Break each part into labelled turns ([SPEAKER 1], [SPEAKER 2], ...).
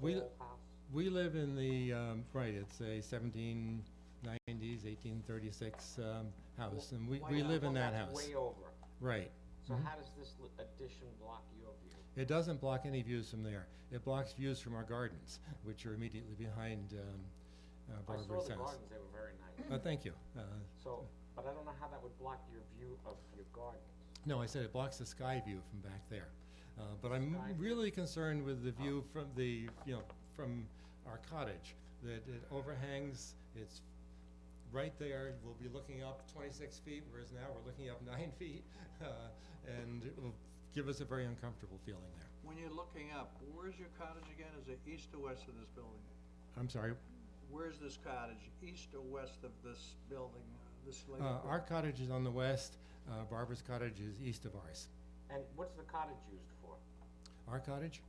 [SPEAKER 1] We-
[SPEAKER 2] whole house.
[SPEAKER 1] We live in the, um, right, it's a seventeen nineties, eighteen thirty-six, um, house, and we,
[SPEAKER 2] Why
[SPEAKER 1] we
[SPEAKER 2] not?
[SPEAKER 1] live in
[SPEAKER 2] Well,
[SPEAKER 1] that
[SPEAKER 2] that's
[SPEAKER 1] house.
[SPEAKER 2] Way over.
[SPEAKER 1] Right.
[SPEAKER 2] So
[SPEAKER 1] Mhm.
[SPEAKER 2] how does this li- addition block your view?
[SPEAKER 1] It doesn't block any views from there. It blocks views from our gardens, which are immediately behind, um, uh,
[SPEAKER 2] I saw
[SPEAKER 1] Barbara's
[SPEAKER 2] the
[SPEAKER 1] house.
[SPEAKER 2] gardens, they were very nice.
[SPEAKER 1] Uh, thank you. Uh,
[SPEAKER 2] So, but I don't know how that would block your view of your garden.
[SPEAKER 1] no, I said it blocks the sky view from back there. Uh, but I'm
[SPEAKER 2] Sky view. Oh.
[SPEAKER 1] really concerned with the view from the, you know, from our cottage, that it overhangs, it's right there, we'll be looking up twenty-six feet, whereas now we're looking up nine feet, uh, and it will give us a very uncomfortable feeling there.
[SPEAKER 3] When you're looking up, where's your cottage again? Is it east or west of this building?
[SPEAKER 1] I'm sorry,
[SPEAKER 3] Where's this cottage, east or west of this building, uh, this lake?
[SPEAKER 1] Uh, our cottage is on the west, uh, Barbara's cottage is east of ours.
[SPEAKER 2] And what's the cottage used for?
[SPEAKER 1] Our cottage,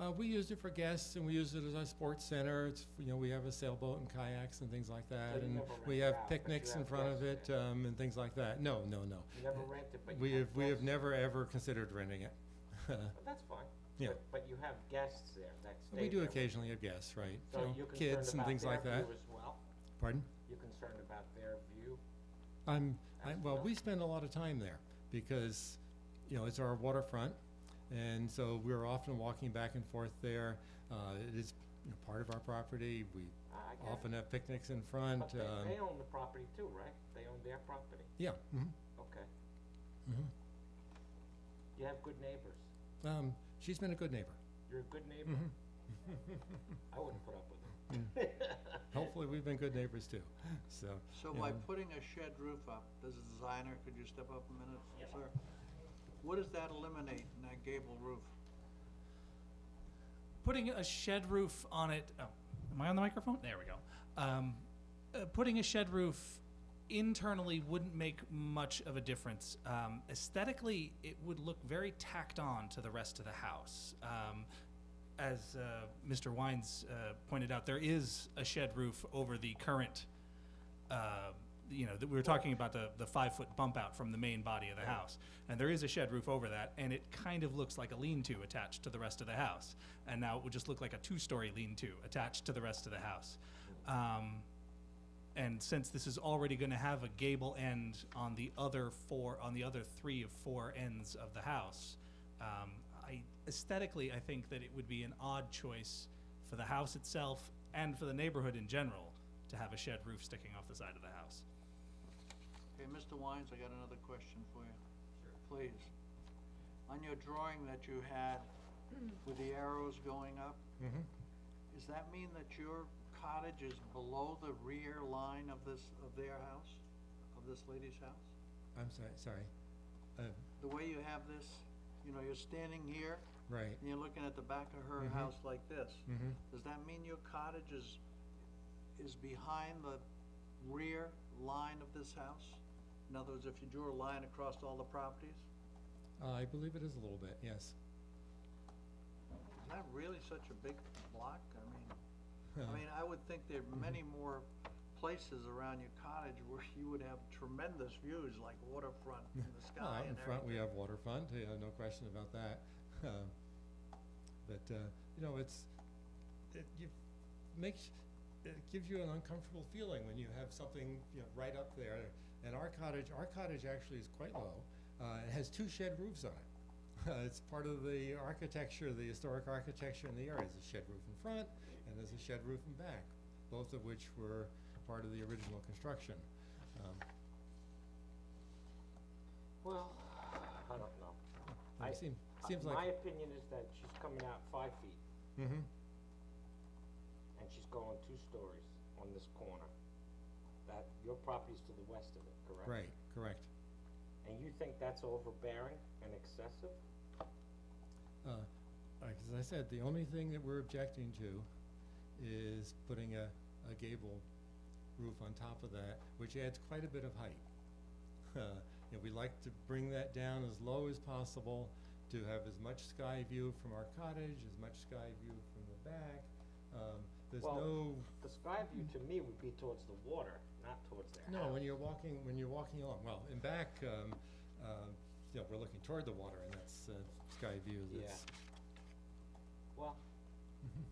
[SPEAKER 1] uh, we used it for guests and we use it as our sports center, it's, you know, we have a sailboat and kayaks and things like that.
[SPEAKER 2] you
[SPEAKER 1] And
[SPEAKER 2] never rent
[SPEAKER 1] we
[SPEAKER 2] it
[SPEAKER 1] have
[SPEAKER 2] out, but you
[SPEAKER 1] picnics in
[SPEAKER 2] have
[SPEAKER 1] front of it,
[SPEAKER 2] guests
[SPEAKER 1] um, and things like that. No, no, no.
[SPEAKER 2] You never rent it, but
[SPEAKER 1] Uh, We
[SPEAKER 2] you
[SPEAKER 1] have,
[SPEAKER 2] have guests.
[SPEAKER 1] we have never ever considered renting it.
[SPEAKER 2] But that's fine.
[SPEAKER 1] Yeah.
[SPEAKER 2] But- But you have guests there that stay there.
[SPEAKER 1] We do occasionally have guests, right?
[SPEAKER 2] So
[SPEAKER 1] you know,
[SPEAKER 2] you're concerned
[SPEAKER 1] Kids and
[SPEAKER 2] about
[SPEAKER 1] things like
[SPEAKER 2] their
[SPEAKER 1] that.
[SPEAKER 2] view as well?
[SPEAKER 1] Pardon?
[SPEAKER 2] You're concerned about their view?
[SPEAKER 1] I'm, I,
[SPEAKER 2] That's
[SPEAKER 1] well,
[SPEAKER 2] not-
[SPEAKER 1] we spend a lot of time there because, you know, it's our waterfront. And so we're often walking back and forth there. Uh, it is you know, part of our property. We
[SPEAKER 2] I get it.
[SPEAKER 1] often have picnics in front.
[SPEAKER 2] But they,
[SPEAKER 1] um,
[SPEAKER 2] they own the property too, right? They own their property,
[SPEAKER 1] Yeah. mhm,
[SPEAKER 2] okay.
[SPEAKER 1] mhm.
[SPEAKER 2] You have good neighbors.
[SPEAKER 1] Um, she's been a good neighbor.
[SPEAKER 2] You're a good neighbor.
[SPEAKER 1] Mhm.
[SPEAKER 2] I wouldn't put up
[SPEAKER 1] Mm.
[SPEAKER 2] with it.
[SPEAKER 1] Hopefully, we've been good neighbors too, so.
[SPEAKER 3] So
[SPEAKER 1] you
[SPEAKER 3] by
[SPEAKER 1] know.
[SPEAKER 3] putting a shed roof up, as a designer, could you step up a minute, sir? What does that eliminate in that gable roof?
[SPEAKER 4] putting a shed roof on it. Oh, am I on the microphone? There we go. Um, uh, putting a shed roof internally wouldn't make much of a difference. Um, aesthetically, it would look very tacked on to the rest of the house. Um, as uh, Mr. Wines uh, pointed out, there is a shed roof over the current. Uh, you know, that we were talking about the, the five foot bump out from the main body of the house. And there is a shed roof over that, and it kind of looks like a lean to attached to the rest of the house. And now it would just look like a two story lean to attached to the rest of the house. Um, and since this is already going to have a gable end on the other four, on the other three of four ends of the house, um, I aesthetically I think that it would be an odd choice for the house itself and for the neighborhood in general to have a shed roof sticking off the side of the house.
[SPEAKER 3] Okay, Mr. Wines, I got another question for you. Please. On your drawing that you had with the arrows going up,
[SPEAKER 1] Mhm.
[SPEAKER 3] Mm-hmm. does that mean that your cottage is below the rear line of this, of their house, of this lady's house?
[SPEAKER 1] I'm sorry, sorry. Uh,
[SPEAKER 3] The way you have this, you know, you're standing here
[SPEAKER 1] right,
[SPEAKER 3] and you're looking at the back of her
[SPEAKER 1] Mhm.
[SPEAKER 3] house like this.
[SPEAKER 1] mhm.
[SPEAKER 3] Does that mean your cottage is, is behind the rear line of this house? In other words, if you drew a line across all the properties,
[SPEAKER 1] I believe it is a little bit, yes.
[SPEAKER 3] is that really such a big block? I mean,
[SPEAKER 1] Uh,
[SPEAKER 3] I mean, I would think there are many
[SPEAKER 1] Mm-hmm.
[SPEAKER 3] more places around your cottage where you would have tremendous views, like waterfront and the
[SPEAKER 1] Well,
[SPEAKER 3] sky
[SPEAKER 1] out Oh, in
[SPEAKER 3] and
[SPEAKER 1] front, we
[SPEAKER 3] everything.
[SPEAKER 1] have waterfront, yeah, no question about that. Uh, But, uh, you know, it's, it, you, makes, it gives you an uncomfortable feeling when you have something, you know, right up there. And our cottage, our cottage actually is quite low, uh, it has two shed roofs on it. Uh, It's part of the architecture, the historic architecture in the area, there's a shed roof in front, and there's a shed roof in back, both of which were part of the original construction. Um,
[SPEAKER 2] Well, I don't know.
[SPEAKER 1] it
[SPEAKER 2] I-
[SPEAKER 1] seem-
[SPEAKER 2] Uh,
[SPEAKER 1] Seems
[SPEAKER 2] My
[SPEAKER 1] like,
[SPEAKER 2] opinion is that she's coming out five feet
[SPEAKER 1] mhm.
[SPEAKER 2] and she's going two stories on this corner. That, your property's to the west of it, correct?
[SPEAKER 1] Right, correct.
[SPEAKER 2] And you think that's overbearing and excessive?
[SPEAKER 1] Uh, like, As I said, the only thing that we're objecting to is putting a, a gable roof on top of that, which adds quite a bit of height. Uh, You know, we like to bring that down as low as possible to have as much sky view from our cottage, as much sky view from the back. Um, There's
[SPEAKER 2] Well,
[SPEAKER 1] no,
[SPEAKER 2] The sky view to me would be towards the water, not towards their house.
[SPEAKER 1] no, when you're walking, when you're walking along, well, in back, um, um, you know, we're looking toward the water and uh, that's uh, sky view
[SPEAKER 2] Yeah.
[SPEAKER 1] that's,
[SPEAKER 2] Well,